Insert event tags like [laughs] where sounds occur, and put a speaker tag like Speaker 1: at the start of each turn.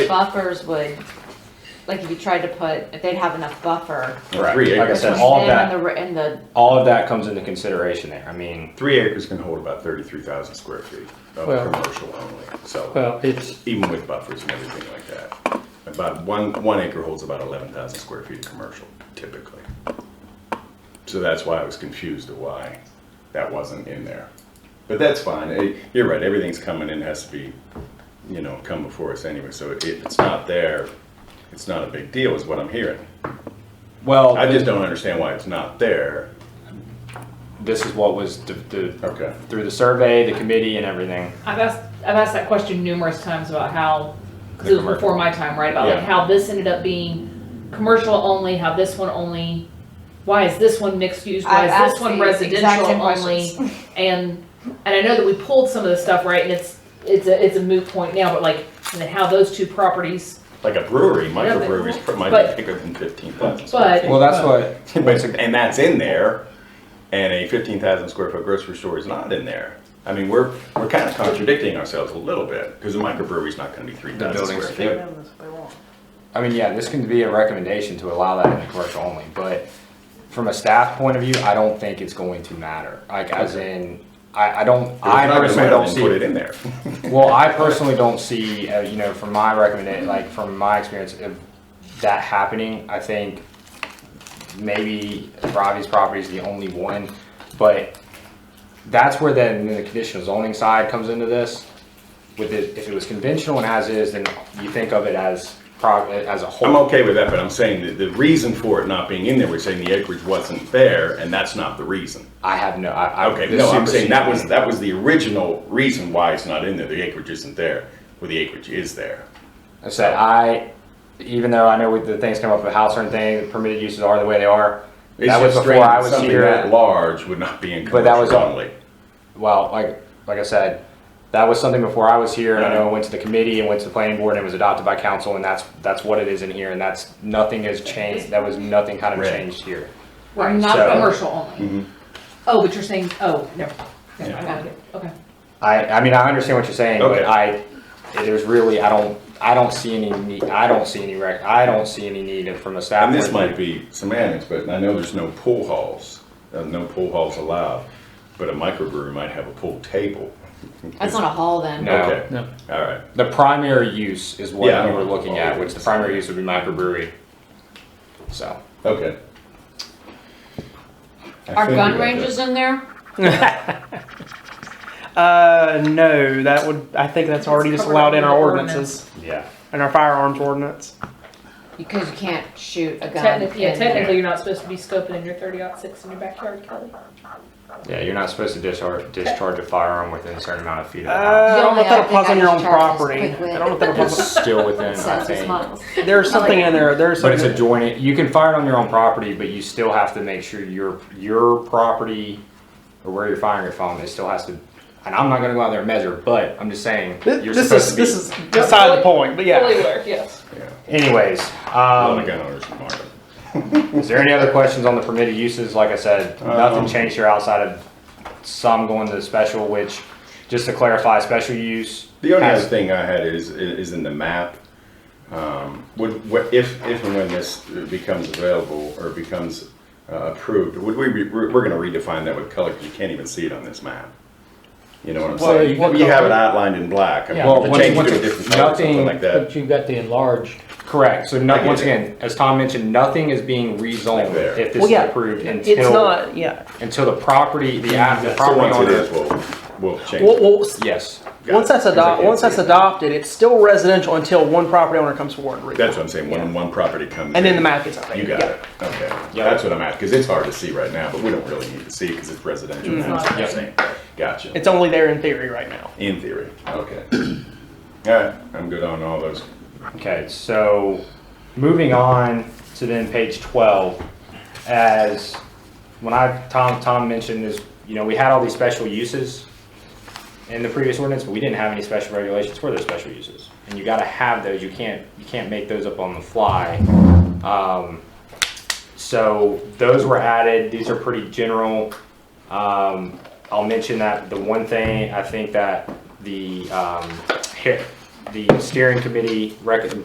Speaker 1: buffers would, like if you tried to put, if they'd have enough buffer.
Speaker 2: Correct.
Speaker 3: Three
Speaker 2: Like I
Speaker 3: acres.
Speaker 2: said, all
Speaker 1: between
Speaker 2: of that,
Speaker 1: them And the, and
Speaker 2: all of that comes into consideration there. I mean,
Speaker 3: Three acres can hold about thirty-three thousand square feet of
Speaker 4: Well-
Speaker 3: commercial only, so,
Speaker 4: Well, it's,
Speaker 3: even with buffers and everything like that. About one, one acre holds about eleven thousand square feet of commercial typically. So that's why I was confused at why that wasn't in there. But that's fine, Eh, you're right, everything's coming in, has to be, you know, come before us anyway, so if it's not there, it's not a big deal is what I'm hearing.
Speaker 2: well,
Speaker 3: I just don't understand why it's not there.
Speaker 2: this is what was the, the
Speaker 3: Okay.
Speaker 2: through the survey, the committee, and everything.
Speaker 5: I've asked, I've asked that question numerous times about how, because
Speaker 2: The
Speaker 5: it was before my time, right? About like
Speaker 2: Yeah.
Speaker 5: how this ended up being commercial only, how this one only, why is this one mixed use? Why
Speaker 1: I've
Speaker 5: is
Speaker 1: asked
Speaker 5: this one
Speaker 1: the exact
Speaker 5: residential
Speaker 1: same
Speaker 5: only?
Speaker 1: questions. [laughs]
Speaker 5: And, and I know that we pulled some of the stuff, right? And it's, it's a, it's a moot point now, but like, and then how those two properties,
Speaker 3: Like a brewery,
Speaker 5: Yeah, but-
Speaker 3: microbreweries pr- might
Speaker 5: but-
Speaker 3: be bigger than fifteen thousand.
Speaker 5: but.
Speaker 2: Well, that's [laughs] what.
Speaker 3: And that's in there, and a fifteen thousand square foot grocery store is not in there. I mean, we're, we're kind of contradicting ourselves a little bit, because a microbrewery's not gonna be three thousand
Speaker 2: buildings
Speaker 3: square
Speaker 2: fit.
Speaker 3: feet.
Speaker 2: I mean, yeah, this can be a recommendation to allow that in the commercial only, but from a staff point of view, I don't think it's going to matter. Like, as in, I, I don't, I personally don't see.
Speaker 3: Put it in there.
Speaker 2: Well, I personally don't see, uh, you know, from my recommendation, like from my experience, of that happening. I think maybe Robbie's property is the only one, but that's where then the conditional zoning side comes into this. With it, if it was conventional and as is, then you think of it as prog, as a
Speaker 3: I'm
Speaker 2: whole.
Speaker 3: okay with that, but I'm saying that the reason for it not being in there, we're saying the acreage wasn't there, and that's not the reason.
Speaker 2: I have no, I, I.
Speaker 3: Okay,
Speaker 2: this
Speaker 3: no, I'm saying
Speaker 2: supersedes
Speaker 3: that was,
Speaker 2: me.
Speaker 3: that was the original reason why it's not in there, the acreage isn't there, where the acreage is there.
Speaker 2: I said I, even though I know with the things come up with house or anything, permitted uses are the way they are.
Speaker 3: It's
Speaker 2: That was
Speaker 3: just
Speaker 2: before I
Speaker 3: strange
Speaker 2: was
Speaker 3: that something
Speaker 2: here.
Speaker 3: That large would not be in
Speaker 2: But that was
Speaker 3: commercial
Speaker 2: all-
Speaker 3: only.
Speaker 2: well, like like I said, that was something before I was here, and I know
Speaker 3: Right.
Speaker 2: it went to the committee and went to the planning board, and it was adopted by council, and that's that's what it is in here, and that's nothing has changed. That was nothing kind of
Speaker 3: Right.
Speaker 2: changed here.
Speaker 5: Right, not
Speaker 2: So- mm-hmm.
Speaker 5: commercial only. Oh, but you're saying, oh, no, no, I got it, okay.
Speaker 2: I I mean I understand what you're saying,
Speaker 3: Okay.
Speaker 2: but I there's really I don't I don't see any need I don't see any rec I don't see any need from a staff.
Speaker 3: And this
Speaker 2: point of
Speaker 3: might
Speaker 2: view.
Speaker 3: be semantics, but I know there's no pool halls, uh, no pool halls allowed, but a microbrewery might have a pool table.
Speaker 1: that's not a hall then.
Speaker 2: No.
Speaker 3: Okay,
Speaker 4: no,
Speaker 3: all right.
Speaker 2: the primary use is what
Speaker 3: Yeah, I
Speaker 2: we
Speaker 3: don't
Speaker 2: were
Speaker 3: know.
Speaker 2: looking at, which the primary use would be microbrewery. So
Speaker 3: Okay. I
Speaker 1: Are
Speaker 3: figured
Speaker 1: gun
Speaker 3: that-
Speaker 1: ranges in there?
Speaker 6: Uh, no, that would, I think that's already
Speaker 5: It's
Speaker 6: just allowed in our
Speaker 5: covered under the Uh,
Speaker 6: ordinances,
Speaker 2: yeah.
Speaker 6: in our firearms ordinance.
Speaker 1: Because you can't shoot a gun.
Speaker 5: Technically, yeah,
Speaker 1: in-
Speaker 5: technically, you're not supposed to be scoping in your thirty six in your backyard, Kelly.
Speaker 2: Yeah, you're not supposed to discharge, discharge a firearm within a certain amount of feet of the
Speaker 6: Uh,
Speaker 2: house.
Speaker 6: I don't know
Speaker 1: only
Speaker 6: if that
Speaker 1: have to
Speaker 6: applies on your own
Speaker 1: charge us
Speaker 6: property.
Speaker 1: quick wit.
Speaker 6: I don't know if that applies.
Speaker 5: [laughs]
Speaker 2: It's still within, I
Speaker 1: Sounds
Speaker 2: think.
Speaker 1: miles.
Speaker 6: There's something in there. There's
Speaker 2: But
Speaker 6: something.
Speaker 2: it's adjoining, you can fire it on your own property, but you still have to make sure your, your property or where you're firing it from, it still has to, and I'm not gonna go out there and measure, but I'm just saying,
Speaker 6: Th-
Speaker 2: you're
Speaker 6: this is
Speaker 2: supposed to
Speaker 6: this
Speaker 2: be.
Speaker 6: is beside the point. But
Speaker 5: Fully
Speaker 6: yeah,
Speaker 5: aware, yes.
Speaker 2: Anyways,
Speaker 3: A lot of
Speaker 2: um,
Speaker 3: gun owners in Marvin.
Speaker 2: is there any other questions on the permitted uses? Like I said, nothing
Speaker 3: Um,
Speaker 2: changed here outside of some going to the special, which, just to clarify, special use.
Speaker 3: The only
Speaker 2: has-
Speaker 3: other thing I had is, is in the map, um, would, what- if, if and when this becomes available or becomes uh, approved, would we, be- we're we're gonna redefine that with color, because you can't even see it on this map. You know what I'm
Speaker 2: Well,
Speaker 3: saying?
Speaker 2: what
Speaker 3: You have it
Speaker 2: color?
Speaker 3: outlined in black, I mean,
Speaker 2: Well,
Speaker 3: if you
Speaker 2: once-
Speaker 3: change it
Speaker 2: once
Speaker 3: to a
Speaker 2: it's
Speaker 3: different color, something
Speaker 2: nothing-
Speaker 3: like that.
Speaker 7: But you've got the enlarged,
Speaker 2: Correct, so
Speaker 3: I
Speaker 2: no,
Speaker 3: get
Speaker 2: once
Speaker 3: it.
Speaker 2: again, as Tom mentioned, nothing is being rezoned
Speaker 3: Like there.
Speaker 2: if this
Speaker 6: Well,
Speaker 2: is
Speaker 6: yeah.
Speaker 2: approved until.
Speaker 6: it's not. Yeah.
Speaker 2: Until the property, the, ad- the
Speaker 3: Mm-hmm. So
Speaker 2: property
Speaker 3: once it is,
Speaker 2: owner.
Speaker 3: we'll, we'll change
Speaker 6: Well,
Speaker 3: it.
Speaker 6: well,
Speaker 2: Yes,
Speaker 3: Got
Speaker 6: once
Speaker 3: it.
Speaker 6: that's
Speaker 3: 'Cause I
Speaker 6: adopted,
Speaker 3: can't
Speaker 6: once
Speaker 3: see
Speaker 6: that's
Speaker 3: it.
Speaker 6: adopted, it's still residential until one property owner comes forward and reads.
Speaker 3: That's what I'm saying, when one property comes.
Speaker 6: and then the
Speaker 3: in,
Speaker 6: map gets updated.
Speaker 3: You got
Speaker 6: yeah.
Speaker 3: it, okay.
Speaker 2: Yeah.
Speaker 3: That's what I'm at, because it's hard to see right now, but we don't really need to see because it's residential. That's what I'm
Speaker 2: Yep.
Speaker 3: saying. Gotcha.
Speaker 6: It's only there in theory right now.
Speaker 3: In theory, okay. [clears throat] All right, I'm good on all those.
Speaker 2: okay, so moving on to then page twelve, as when I, Tom, Tom mentioned is, you know, we had all these special uses in the previous ordinance, but we didn't have any special regulations for those special uses. And you gotta have those, you can't, you can't make those up on the fly. Um, So those were added. These are pretty general. Um, I'll mention that the one thing I think that the um, hit- the steering committee rec-